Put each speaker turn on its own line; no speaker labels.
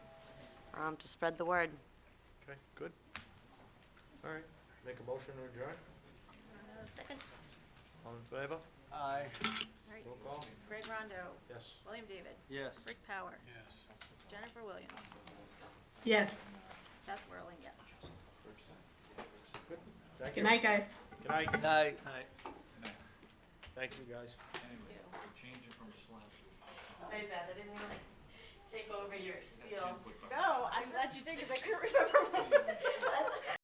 um, to spread the word.
Okay, good. All right, make a motion to adjourn.
Second,
All in favor?
Aye.
all right.
Roll call?
Greg Rondo,
Yes.
William David,
Yes.
Rick Power,
Yes.
Jennifer Williams,
Yes.
Beth Whirling, yes.
Thank you.
Good night, guys.
Good night.
Aye.
Thank you, guys.
Thank you.
Change it from slab to
Sorry, Beth, I didn't really take over your spiel. No, I'm glad you did, because I couldn't remember what,